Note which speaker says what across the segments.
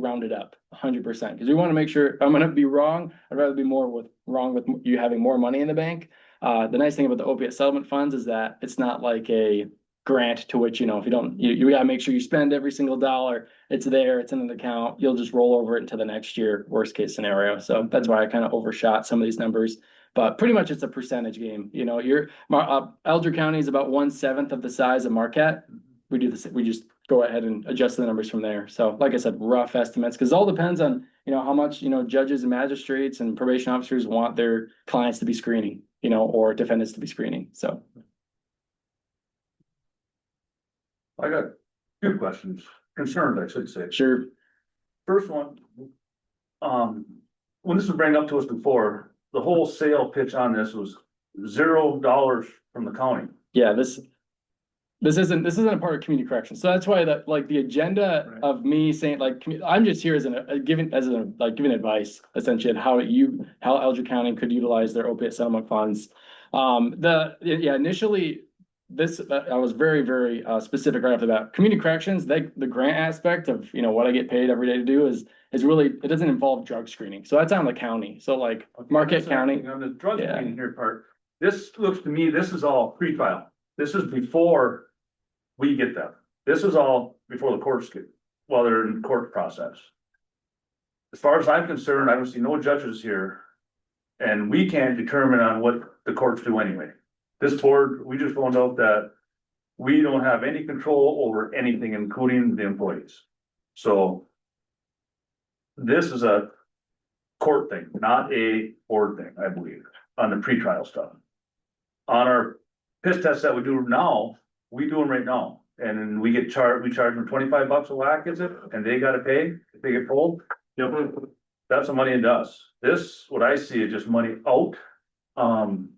Speaker 1: round it up hundred percent, because we want to make sure, if I'm gonna be wrong, I'd rather be more with, wrong with you having more money in the bank. Uh, the nice thing about the opiate settlement funds is that it's not like a grant to which, you know, if you don't, you, you gotta make sure you spend every single dollar. It's there, it's in an account, you'll just roll over it into the next year, worst case scenario. So that's why I kind of overshot some of these numbers. But pretty much it's a percentage game, you know, you're, Mar- uh, Elder County is about one seventh of the size of Marquette. We do this, we just go ahead and adjust the numbers from there. So like I said, rough estimates, because it all depends on, you know, how much, you know, judges and magistrates and probation officers want their clients to be screening, you know, or defendants to be screening. So
Speaker 2: I got two questions, concerns, I should say.
Speaker 1: sure,
Speaker 2: First one, um, when this was brought up to us before, the whole sale pitch on this was zero dollars from the county.
Speaker 1: yeah, this. This isn't, this isn't a part of community corrections. So that's why that, like, the agenda
Speaker 2: Right.
Speaker 1: of me saying, like, commu- I'm just here as an, uh, giving, as a, like, giving advice. Essentially, on how you, how Elder County could utilize their opiate settlement funds. Um, the, yeah, initially, this, uh, I was very, very, uh, specific right off the bat. Community corrections, they, the grant aspect of, you know, what I get paid every day to do is. Is really, it doesn't involve drug screening. So that's on the county. So like Marquette County,
Speaker 2: On the drug
Speaker 1: Yeah.
Speaker 2: screening here part, this looks to me, this is all pre-trial. This is before we get them. This is all before the courts get, while they're in court process. As far as I'm concerned, I don't see no judges here. And we can't determine on what the courts do anyway. This board, we just found out that we don't have any control over anything, including the employees. So this is a court thing, not a board thing, I believe, on the pretrial stuff. On our piss test that we do now, we do them right now, and then we get charged, we charge them twenty-five bucks a whack, is it? And they gotta pay if they get pulled? Yep. That's the money into us. This, what I see is just money out. Um,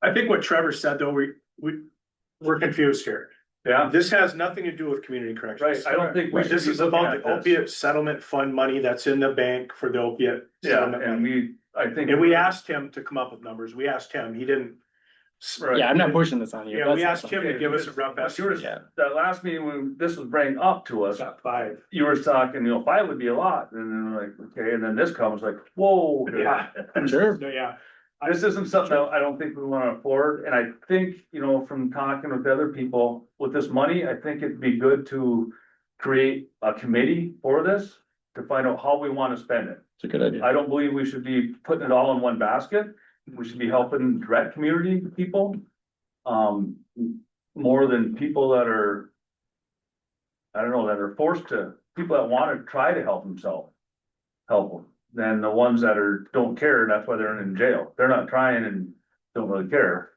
Speaker 3: I think what Trevor said, though, we, we, we're confused here.
Speaker 2: yeah,
Speaker 3: Uh, This has nothing to do with community corrections.
Speaker 2: Right, I don't think we should
Speaker 3: This
Speaker 2: be
Speaker 3: is about
Speaker 2: looking
Speaker 3: the
Speaker 2: at this.
Speaker 3: opiate settlement fund money that's in the bank for the opiate.
Speaker 2: yeah,
Speaker 3: settlement
Speaker 2: and
Speaker 3: money.
Speaker 2: we, I think.
Speaker 3: And we asked him to come up with numbers. We asked him, he didn't.
Speaker 2: Right.
Speaker 1: yeah, I'm not pushing this on you.
Speaker 3: Yeah, we
Speaker 1: That's-
Speaker 3: asked him to give us a rough estimate.
Speaker 1: Yeah.
Speaker 2: That last meeting, when this was bringing up to us,
Speaker 3: About Five.
Speaker 2: you were talking, you know, five would be a lot, and then we're like, okay, and then this comes like, whoa.
Speaker 3: Yeah.
Speaker 1: Sure.
Speaker 3: No, yeah,
Speaker 2: This isn't something that I don't think we wanna afford, and I think, you know, from talking with other people, with this money, I think it'd be good to. Create a committee for this to find out how we wanna spend it.
Speaker 1: It's a good idea.
Speaker 2: I don't believe we should be putting it all in one basket. We should be helping direct community people. Um, more than people that are. I don't know, that are forced to, people that wanna try to help themselves. Help them, than the ones that are, don't care, and that's why they're in jail. They're not trying and don't really care.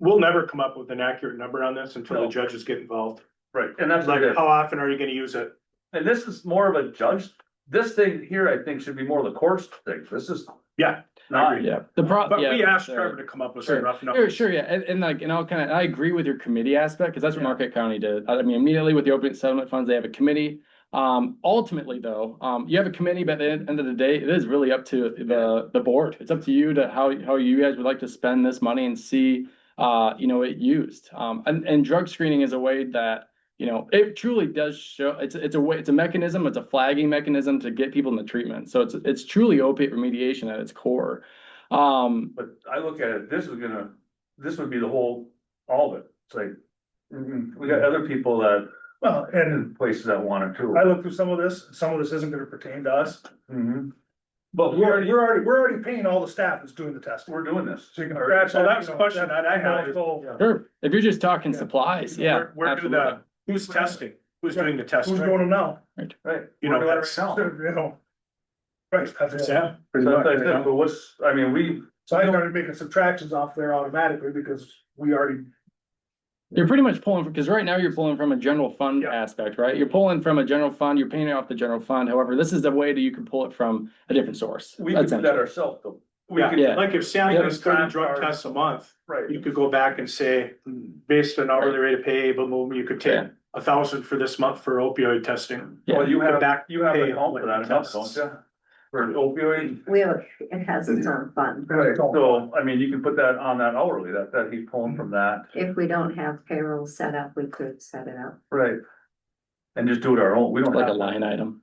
Speaker 3: we'll never come up with an accurate number on this until the
Speaker 2: No.
Speaker 3: judges get involved.
Speaker 2: Right. And that's
Speaker 3: Like,
Speaker 2: like,
Speaker 3: how often are you gonna use it?
Speaker 2: and this is more of a judge, this thing here, I think, should be more of the court's thing. This is.
Speaker 3: Yeah.
Speaker 2: Not,
Speaker 1: Yeah, the pro.
Speaker 3: But we
Speaker 1: yeah,
Speaker 3: asked
Speaker 1: sure.
Speaker 3: Trevor to come up with some rough
Speaker 1: Sure,
Speaker 3: numbers.
Speaker 1: sure, yeah, and, and like, and I'll kind of, I agree with your committee aspect, because that's what
Speaker 3: Yeah.
Speaker 1: Marquette County did. I mean, immediately with the opiate settlement funds, they have a committee. Um, ultimately though, um, you have a committee, but at the end of the day, it is really up to the, the board. It's up to you to how, how you guys would like to spend this money and see, uh, you know, it used. Um, and, and drug screening is a way that, you know, it truly does show, it's, it's a way, it's a mechanism, it's a flagging mechanism to get people into treatment. So it's, it's truly opiate remediation at its core. Um,
Speaker 2: But I look at it, this is gonna, this would be the whole, all of it, it's like, mm, we got other people that,
Speaker 4: Well, and
Speaker 2: and places that want it too.
Speaker 4: I looked through some of this, some of this isn't gonna pertain to us.
Speaker 2: Mhm. But
Speaker 4: We're,
Speaker 2: we're,
Speaker 4: already- we're already, we're already paying all the staff that's doing the testing.
Speaker 2: we're doing this.
Speaker 4: So you can scratch
Speaker 3: Well,
Speaker 4: that,
Speaker 3: that's
Speaker 4: you
Speaker 3: a
Speaker 4: know,
Speaker 3: question that I have is-
Speaker 4: so-
Speaker 1: Sure, if you're just talking
Speaker 4: Yeah.
Speaker 1: supplies, yeah.
Speaker 3: Where- Where do
Speaker 1: absolutely.
Speaker 3: the, who's testing? Who's doing the testing?
Speaker 4: Who's doing them now?
Speaker 2: Right.
Speaker 3: You
Speaker 2: We're
Speaker 3: know,
Speaker 2: doing it
Speaker 3: that's-
Speaker 2: right now. So
Speaker 4: You know. Right, that's it.
Speaker 3: Yeah.
Speaker 2: that's what I said, But what's, I mean, we,
Speaker 4: So I started making subtractions off there automatically because we already,
Speaker 1: You're pretty much pulling, because right now you're pulling from a general fund
Speaker 3: Yeah.
Speaker 1: aspect, right? You're pulling from a general fund, you're paying it off the general fund. However, this is the way that you can pull it from a different source.
Speaker 2: we could do
Speaker 1: essentially.
Speaker 2: that ourselves though. We
Speaker 3: Yeah,
Speaker 2: could,
Speaker 1: Yeah.
Speaker 3: Like if Sam
Speaker 1: Yeah.
Speaker 3: does thirty drug tests a month,
Speaker 2: right,
Speaker 3: you could go back and say, "Hmm, based on hourly rate of pay, but well, you could take
Speaker 1: Yeah.
Speaker 3: a thousand for this month for opioid testing.
Speaker 1: Yeah.
Speaker 2: well, you
Speaker 3: The
Speaker 2: have,
Speaker 3: back
Speaker 2: you have
Speaker 3: pay
Speaker 2: an help for
Speaker 3: when
Speaker 2: that
Speaker 3: it
Speaker 2: enough, don't
Speaker 3: tests.
Speaker 2: you? For opioid,
Speaker 5: We have, a it has its own fund.
Speaker 2: right, so, I mean, you can put that on that hourly, that, that he's pulling from that,
Speaker 5: If we don't have payroll set up, we could set it up.
Speaker 2: right? And just do it our own, we don't
Speaker 1: Like
Speaker 2: have.
Speaker 1: a
Speaker 2: to.
Speaker 1: line item.